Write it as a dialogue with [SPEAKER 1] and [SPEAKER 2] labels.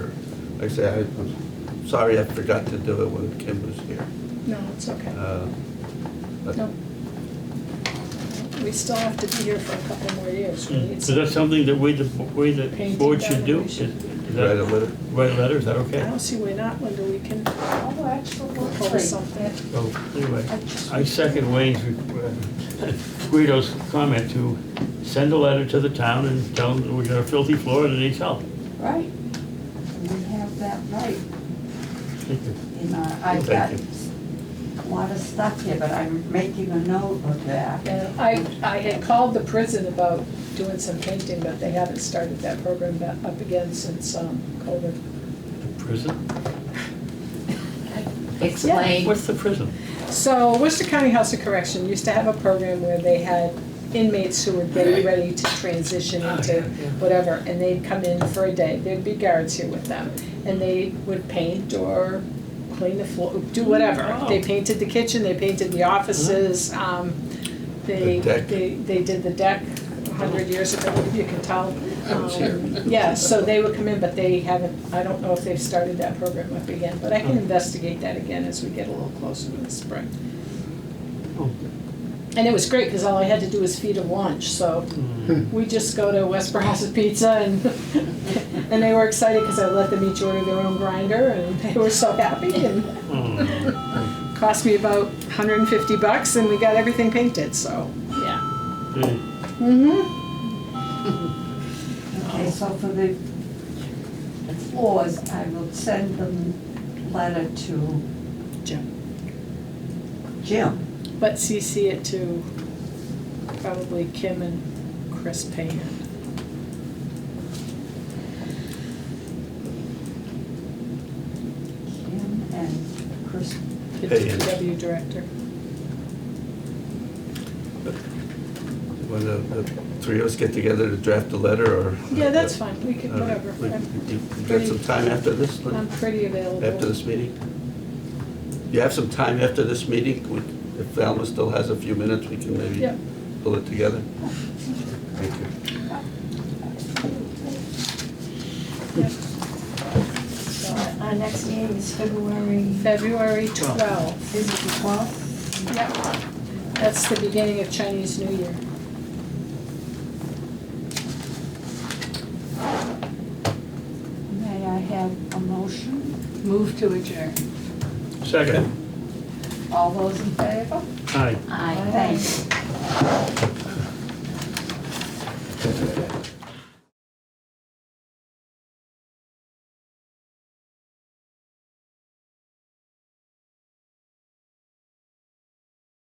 [SPEAKER 1] Like I say, I- I'm sorry I forgot to do it when Kim was here.
[SPEAKER 2] No, it's okay.
[SPEAKER 1] Uh, but-
[SPEAKER 2] No. We still have to be here for a couple more years, right?
[SPEAKER 3] Is that something that we, the, we, the
[SPEAKER 2] Painting
[SPEAKER 3] board should do? Is-
[SPEAKER 2] evaluation.
[SPEAKER 3] is that-
[SPEAKER 1] Write a letter.
[SPEAKER 3] Write a letter, is that
[SPEAKER 2] I
[SPEAKER 3] okay?
[SPEAKER 2] don't see why not, Linda, we can
[SPEAKER 4] Oh, actually,
[SPEAKER 2] pull something.
[SPEAKER 3] So, anyway, I second Wayne's, uh, Guido's comment to send a letter to the town and tell them that we got a filthy floor and it needs help.
[SPEAKER 4] Right. We have that right.
[SPEAKER 3] Thank you.
[SPEAKER 4] in our, I've got
[SPEAKER 3] Thank
[SPEAKER 4] a lot of stuff here, but I'm making a note of that.
[SPEAKER 2] And I, I had called the prison about doing some painting, but they haven't started that program ba- up again since um, COVID.
[SPEAKER 3] Prison?
[SPEAKER 5] Explain.
[SPEAKER 3] What's the prison?
[SPEAKER 2] So Worcester County House of Correction used to have a program where they had inmates who were getting ready to transition into whatever, and they'd come in for a day, there'd be guards here with them, and they would paint or clean the floor, do whatever. They painted the kitchen, they painted the offices, um, they,
[SPEAKER 1] The deck.
[SPEAKER 2] they, they did the deck a hundred years ago, you can tell.
[SPEAKER 1] I was
[SPEAKER 2] Um,
[SPEAKER 1] here.
[SPEAKER 2] Yeah, so they would come in, but they haven't, I don't know if they've started that program up again, but I can investigate that again as we get a little closer to the spring.
[SPEAKER 3] Oh.
[SPEAKER 2] And it was great, because all I had to do was feed them lunch, so we just go to West Barraza Pizza and, and they were excited because I let them each order their own grinder and they were so happy and
[SPEAKER 3] Hmm.
[SPEAKER 2] cost me about hundred and fifty bucks and we got everything painted, so, yeah.
[SPEAKER 3] Hey,
[SPEAKER 2] Mm-hmm.
[SPEAKER 4] Okay, so for the floors, I will send them letter to
[SPEAKER 2] Jim.
[SPEAKER 4] Jim.
[SPEAKER 2] But CC it to probably Kim and Chris Payne.
[SPEAKER 4] Jim and Chris,
[SPEAKER 2] the
[SPEAKER 1] Payne.
[SPEAKER 2] DPW director.
[SPEAKER 1] When the, the three of us get together to draft a letter or?
[SPEAKER 2] Yeah, that's fine, we could,
[SPEAKER 1] Uh,
[SPEAKER 2] whatever.
[SPEAKER 1] we-
[SPEAKER 2] I'm-
[SPEAKER 1] You you got some time after this, Lynn?
[SPEAKER 2] I'm pretty available.
[SPEAKER 1] after this meeting? You have some time after this meeting? We- If Alma still has a few minutes, we can maybe
[SPEAKER 2] Yeah.
[SPEAKER 1] pull it together? Thank you.
[SPEAKER 5] So Our next meeting is February,
[SPEAKER 2] February twelfth.
[SPEAKER 5] is it the twelfth?
[SPEAKER 2] Yep, that's the beginning of Chinese New Year.
[SPEAKER 4] may I have a motion?
[SPEAKER 5] Move to adjourn.
[SPEAKER 3] Second,
[SPEAKER 4] All those in favor?
[SPEAKER 3] aye.
[SPEAKER 5] Aye.
[SPEAKER 4] Thanks.